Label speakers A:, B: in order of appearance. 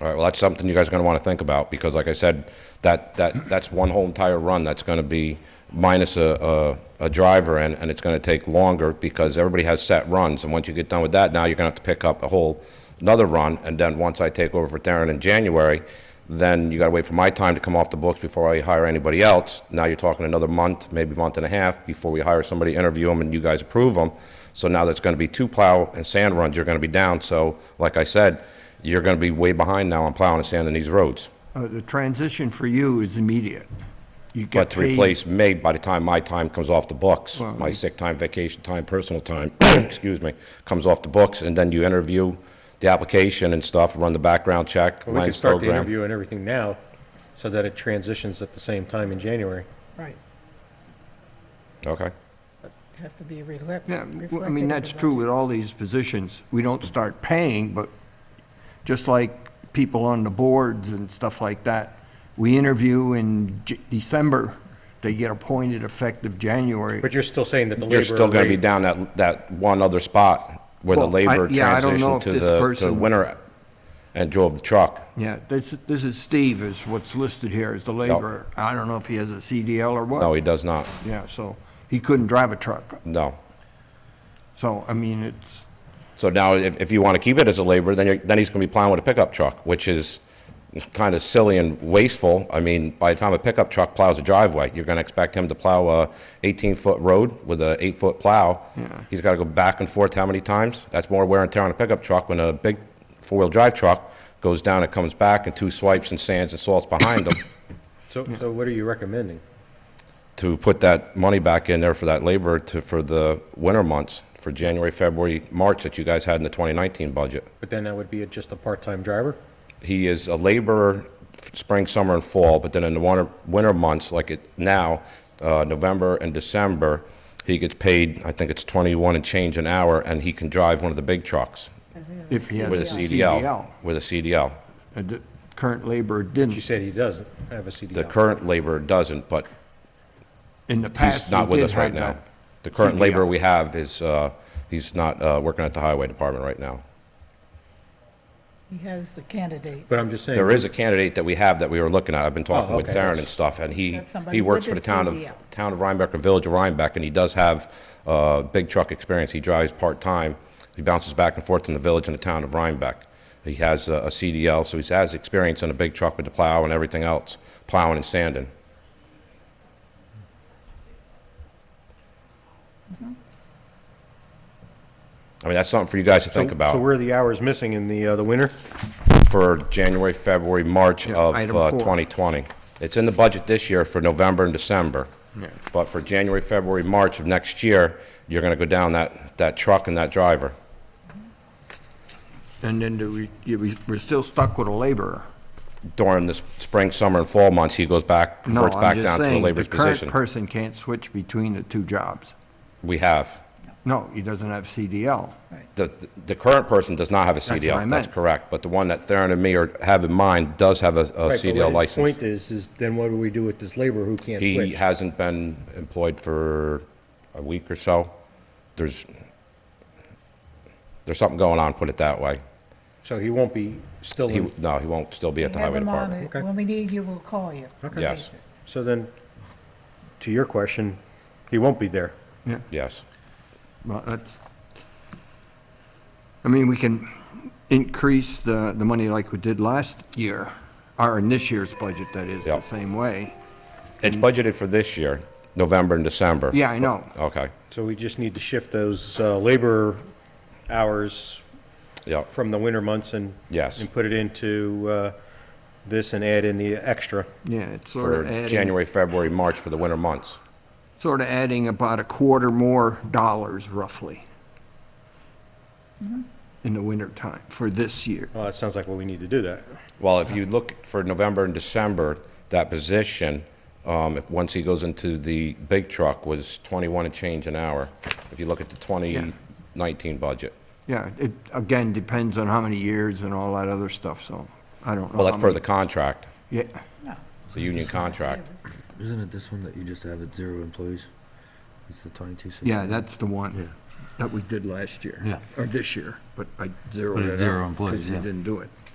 A: All right, well, that's something you guys are going to want to think about, because like I said, that, that, that's one whole entire run that's going to be minus a, a, a driver, and, and it's going to take longer, because everybody has set runs, and once you get done with that, now you're going to have to pick up a whole, another run, and then once I take over for Darren in January, then you got to wait for my time to come off the books before I hire anybody else. Now you're talking another month, maybe month and a half, before we hire somebody, interview them, and you guys approve them. So now that's going to be two plow and sand runs, you're going to be down. So, like I said, you're going to be way behind now on plowing and sanding these roads.
B: Uh, The transition for you is immediate. You get
A: But to
B: paid-
A: replace me, by the time my time comes off the books,
B: Well,
A: my
B: you-
A: sick time, vacation time, personal time, excuse me, comes off the books, and then you interview the application and stuff, run the background check,
C: We can
A: lens
C: start the
A: program.
C: interview and everything now, so that it transitions at the same time in January.
D: Right,
A: Okay.
D: has to be reflect-
B: Yeah,
D: reflected.
B: well, I mean,
D: in the
B: that's true
D: budget.
B: with all these positions. We don't start paying, but just like people on the boards and stuff like that, we interview in J- December, they get appointed effective January.
C: But you're still saying that the labor.
A: You're still going to be
C: rate-
A: down that, that one other spot where the
B: Well, I-
A: labor
B: yeah, I don't know
A: transitioned
B: if
A: to
B: this
A: the, to
B: person-
A: winter and drove the truck.
B: Yeah, this, this is Steve is what's listed here as the laborer. I don't know if he has a CDL or what.
A: No, he does not.
B: Yeah, so he couldn't drive a truck.
A: No.
B: So, I mean, it's,
A: So now, if, if you want to keep it as a laborer, then you're, then he's going to be plowing with a pickup truck, which is kind of silly and wasteful. I mean, by the time a pickup truck plows a driveway, you're going to expect him to plow a 18-foot road with a eight-foot plow. He's got to go back and forth how many times? That's more wear and tear on a pickup truck when a big four-wheel drive truck goes down and comes back and two swipes and sands and salts behind him
C: So, so what are you recommending?
A: to put that money back in there for that labor to, for the winter months, for January, February, March that you guys had in the 2019 budget.
C: But then that would be just a part-time driver?
A: he is a laborer f- spring, summer, and fall, but then in the winter, winter months, like it now, uh, November and December, he gets paid, I think it's 21 and change an hour, and he can drive one of the big trucks
B: if he has
A: with a CDL. With a CDL.
B: Uh, The current laborer
C: You
B: didn't.
C: said he doesn't have a CDL.
A: The current laborer doesn't, but
B: In the past,
A: he's not
B: he
A: with
B: did
A: us right
B: have
A: now.
B: that.
A: The current
B: CDL.
A: laborer we have is, uh, he's not uh, working at the highway department right now.
D: He has the candidate.
C: But I'm just saying.
A: There is a candidate that we have that we were looking at. I've been talking
C: Oh,
A: with
C: okay.
A: Theron and stuff, and he,
D: That's somebody
A: he works for
D: with
A: the
D: a
A: town of,
D: CDL.
A: town of Rhinebeck or Village of Rhinebeck, and he does have, uh, big truck experience. He drives part-time. He bounces back and forth in the village and the town of Rhinebeck. He has a a CDL, so he has experience in a big truck with the plow and everything else, plowing and sanding.
D: Mm-hmm.
A: I mean, that's something for you guys to
C: So-
A: think about
C: So where are the hours missing in the, uh, the winter?
A: for January, February, March
B: Yeah,
A: of
B: item
A: uh,
B: four.
A: 2020. It's in the budget this year for November and December.
B: Yeah.
A: But for January, February, March of next year, you're going to go down that, that truck and that driver.
B: And then do we, you- we- we're still stuck with a laborer.
A: During the s- spring, summer, and fall months, he goes back,
B: No,
A: converts back
B: I'm just
A: down to the
B: saying, the
A: labor's
B: current
A: position.
B: person can't switch between the two jobs.
A: We have.
B: No, he doesn't have CDL.
A: The, the current person does not have a
B: what I
A: CDL, that's
B: meant.
A: correct. But the one that Theron and me are, have in mind does have a a CDL license.
C: Point is, is then what do we do with this laborer who can't switch?
A: He hasn't been employed for a week or so. There's, there's something going on, put it that way.
C: So he won't be still
A: He,
C: in,
A: no, he won't still be at the
D: Have
A: highway
D: him on
A: department.
D: it.
C: Okay.
D: When we need you, we'll call you.
C: Okay.
A: Yes.
D: Basis.
C: so then, to your question, he won't be there.
B: Yeah,
A: Yes.
B: well, that's, I mean, we can increase the, the money like we did last year, or in this year's budget, that is, the
A: Yep.
B: same way.
A: It's budgeted for this year, November and December.
B: Yeah, I know.
A: Okay,
C: So we just need to shift those uh, labor hours
A: yep,
C: from the winter months and.
A: Yes.
C: And put it into uh, this and add in the extra.
B: Yeah, it's sort
A: for
B: of adding.
A: January, February, March for the winter months.
B: sort of adding about a quarter more dollars roughly in the wintertime for this year.
C: Well, that sounds like what we need to do that.
A: Well, if you look for November and December, that position, um, if, once he goes into the big truck, was 21 and change an hour, if you look at the 2019 budget.
B: Yeah, it, again, depends on how many years and all that other stuff, so I don't know.
A: Well,
B: how
A: that's per
B: many-
A: the contract,
B: Yeah,
D: No.
A: the union contract.
E: Isn't it this one that you just have at zero employees? It's the twenty-two sixty.
B: yeah, that's the one that we did last year.
E: Yeah.
B: Or this year, but I zeroed
E: But
B: it
E: it's
B: out.
E: zero employees, yeah.
B: Because we didn't do it.